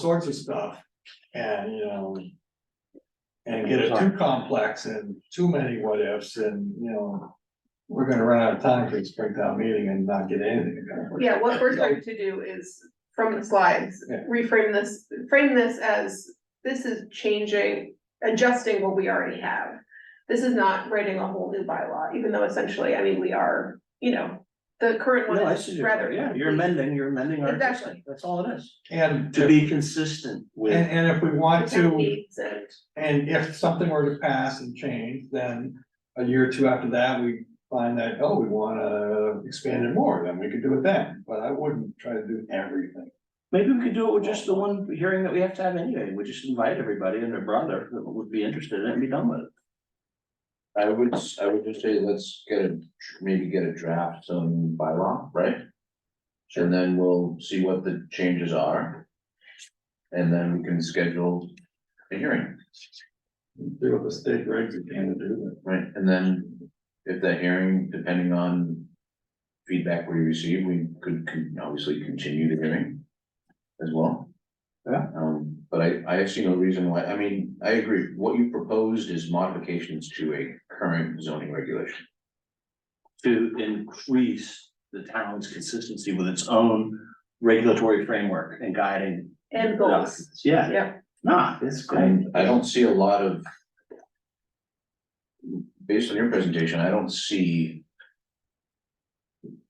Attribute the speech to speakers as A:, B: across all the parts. A: sorts of stuff. And, you know. And get it too complex and too many what ifs and, you know. We're gonna run out of time for this breakdown meeting and not get anything done.
B: Yeah, what we're trying to do is, from the slides,
A: Yeah.
B: reframe this, frame this as, this is changing, adjusting what we already have. This is not writing a whole new bylaw, even though essentially, I mean, we are, you know, the current
C: No,
B: one
C: I
B: is
C: see,
B: rather.
C: yeah, you're amending, you're amending our
B: Exactly.
C: system, that's all it is,
A: And,
C: to
A: if-
C: be consistent
A: and,
C: with.
A: and if we want
B: Town
A: to,
B: needs and
A: and if something were to pass and change, then. A year or two after that, we find that, oh, we wanna expand it more, then we could do it then, but I wouldn't try to do everything.
C: Maybe we could do it with just the one hearing that we have to have anyway, we just invite everybody and their brother that would be interested in it and be done with it.
D: I would, s- I would just say, let's get a, maybe get a draft on bylaw, right? And then we'll see what the changes are. And then we can schedule a hearing,
A: Do what the state regs are trying to do.
D: right? And then if the hearing, depending on feedback we receive, we could con- obviously continue the hearing as well.
C: Yeah.
D: Um, but I, I see no reason why, I mean, I agree, what you proposed is modifications to a current zoning regulation.
C: to increase the town's consistency with its own regulatory framework and guiding.
B: and goals,
C: documents. Yeah,
B: yeah,
C: nah, it's great.
D: And I don't see a lot of. Based on your presentation, I don't see.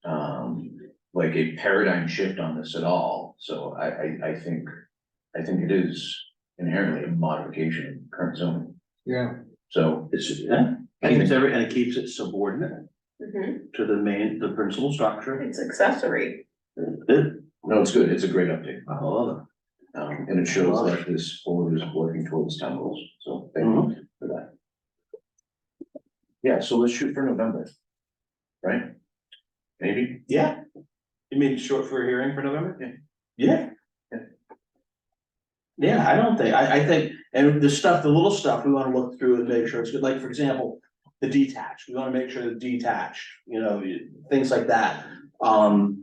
D: Um, like a paradigm shift on this at all, so I, I, I think, I think it is inherently a modification of current zoning,
A: Yeah,
D: so.
C: It's, yeah, keeps every, and it keeps it subordinate
B: Mhm.
C: to the main, the principal structure.
B: it's accessory,
C: It-
D: No, it's good, it's a great update,
C: I love it.
D: um, and it shows that this board is working towards town goals, so thank you for that. Yeah, so let's shoot for November. Right? Maybe?
C: Yeah. You mean short for a hearing for November? Yeah. Yeah. Yeah, I don't think, I, I think, and the stuff, the little stuff, we wanna look through and make sure it's good, like, for example, the detached, we wanna make sure the detached, you know, you- things like that. Um,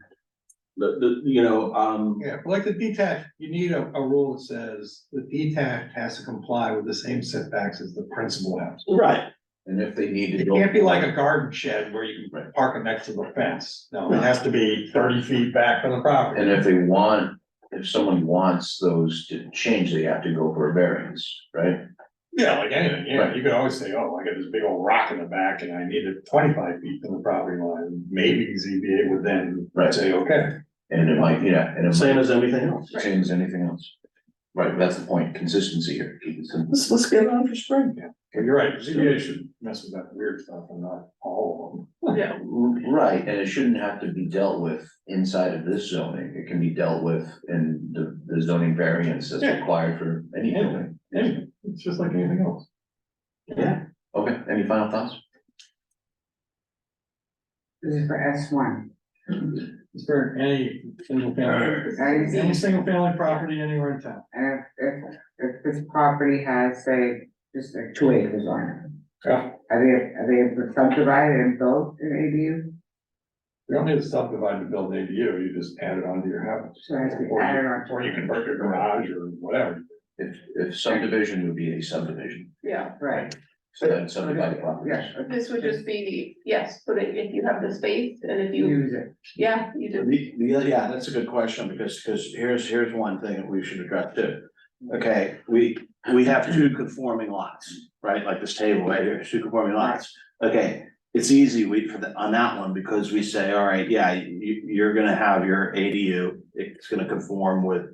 C: the, the, you know, um,
A: yeah, but like the detached, you need a, a rule that says the detached has to comply with the same setbacks as the principal house.
C: right,
D: And if they need to
A: It
D: go.
A: can't be like a garden shed where you can
D: Right.
A: park it next to the fence, no, it has to be thirty feet back from the property.
D: And if they want, if someone wants those to change, they have to go for a variance, right?
A: Yeah, like anything, yeah, you could always say, oh, I got this big old rock in the back and I need it twenty-five feet from the property line, maybe ZBA would then
D: Right.
A: say, okay.
D: And it might, yeah, and it
C: same
D: might,
C: as everything else.
D: same as anything else. Right, that's the point, consistency here, keep it simple.
C: Let's, let's get it on for spring.
A: But you're right, ZBA should mess with that weird stuff and not all
B: yeah.
D: Right, and it shouldn't have to be dealt with inside of this zoning, it can be dealt with in the, the zoning variance that's
A: Yeah.
D: required for any
A: Yeah.
D: building.
A: of them, anyway, it's just like anything else.
C: Yeah,
D: Okay, any final thoughts?
E: This is for S one.
A: It's for any single family, any
E: And
A: single family property anywhere in town.
E: if, if, if this property has, say, just like two acres on
A: Yeah.
E: it, are they, are they subdivided and built in
A: You don't need to subdivide to build an ADU, you just add it onto your
E: ADU?
A: house.
E: So I have to
A: Or
E: add
A: you-
E: it on.
A: Or you convert your garage or whatever.
D: If, if subdivision would be a subdivision,
B: Yeah,
E: Right.
D: so that's subdivided property.
E: Yes.
B: this would just be, yes, but if if you have the space and if you,
E: Use it.
B: yeah, you do.
C: The, the, yeah, that's a good question, because, because here's, here's one thing that we should address too. Okay, we, we have two conforming lots, right, like this table right here, two conforming lots. Okay, it's easy, we, for the, on that one, because we say, all right, yeah, you, you're gonna have your ADU, it's gonna conform with.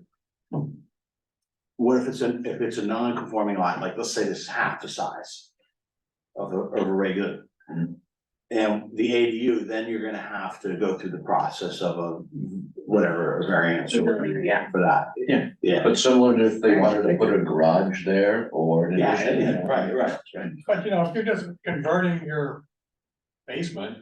C: What if it's a, if it's a non-conforming lot, like, let's say this is half the size of a, of a regular, and the ADU, then you're gonna have to go through the process of a, whatever, a variance or whatever
B: Yeah.
C: for that.
D: Yeah.
C: Yeah.
D: But similar to if they wanted to put a garage there or an
C: Yeah,
D: addition.
C: yeah, right, right.
A: But you know, if you're just converting your basement,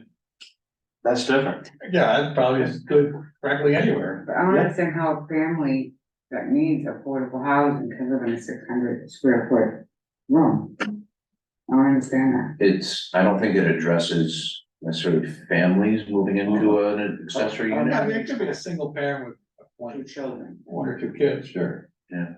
C: That's different.
A: yeah, that probably is good practically anywhere.
E: But I don't understand how a family that needs affordable housing can live in a six hundred square foot room. I don't understand that.
D: It's, I don't think it addresses necessarily families moving into an accessory
A: I mean,
D: unit.
A: it could be a single parent with one,
E: Two children.
A: one or two kids, sure.
D: Yeah.